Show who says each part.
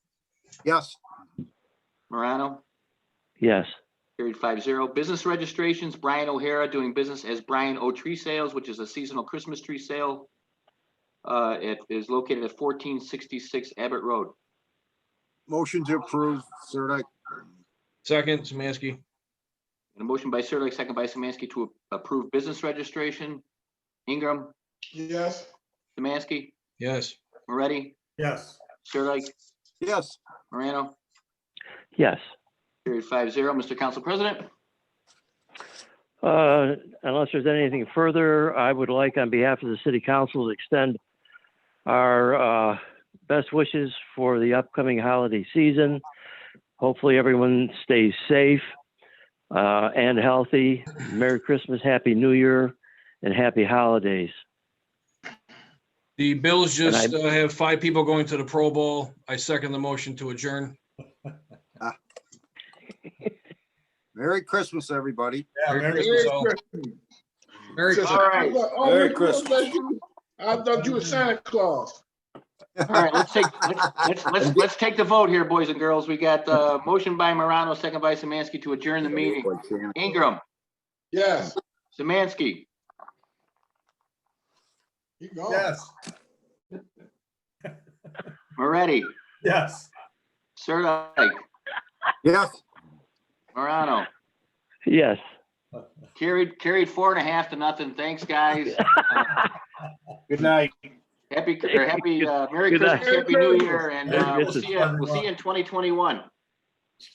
Speaker 1: Yes,
Speaker 2: Morano,
Speaker 3: Yes.
Speaker 2: carried five zero. Business registrations, Brian O'Hara doing business as Brian O Tree Sales, which is a seasonal Christmas tree sale. Uh, it is located at fourteen sixty-six Abbott Road.
Speaker 1: motion to approve, Sirdike.
Speaker 4: Second, Samansky.
Speaker 2: And a motion by Sirdike, second by Samansky to approve business registration. Ingram,
Speaker 5: Yes.
Speaker 2: Samansky,
Speaker 4: Yes.
Speaker 2: Moretti,
Speaker 5: Yes.
Speaker 2: Sirdike,
Speaker 1: Yes,
Speaker 2: Morano,
Speaker 3: Yes.
Speaker 2: carried five zero. Mr. Council President?
Speaker 3: Uh, Unless there's anything further, I would like on behalf of the city council to extend our uh, best wishes for the upcoming holiday season. Hopefully, everyone stays safe uh, and healthy. Merry Christmas, Happy New Year, and Happy Holidays.
Speaker 4: The Bills
Speaker 3: And I-
Speaker 4: just uh, have five people going to the Pro Bowl. I second the motion to adjourn.
Speaker 1: Merry Christmas, everybody.
Speaker 5: Yeah,
Speaker 4: Merry
Speaker 5: Merry
Speaker 4: Christmas,
Speaker 5: Christmas.
Speaker 4: all. Merry
Speaker 5: Sister,
Speaker 4: Christmas.
Speaker 2: All right.
Speaker 5: I thought- oh,
Speaker 1: Merry
Speaker 5: you look like you- I thought you were Santa Claus.
Speaker 2: All right, let's take, let's- let's, let's, let's take the vote here, boys and girls. We got, uh, motion by Morano, second by Samansky to adjourn the meeting. Ingram,
Speaker 5: Yes.
Speaker 2: Samansky,
Speaker 5: You go. Yes.
Speaker 2: Moretti,
Speaker 5: Yes.
Speaker 2: Sirdike,
Speaker 1: Yes,
Speaker 2: Morano.
Speaker 3: Yes.
Speaker 2: Carried, carried four and a half to nothing. Thanks, guys.
Speaker 5: Good night.
Speaker 2: Happy, or happy, uh, Merry
Speaker 3: Good night.
Speaker 2: Christmas, Happy New Year, and, uh,
Speaker 3: Merry
Speaker 2: we'll see you, we'll see you in twenty twenty-one.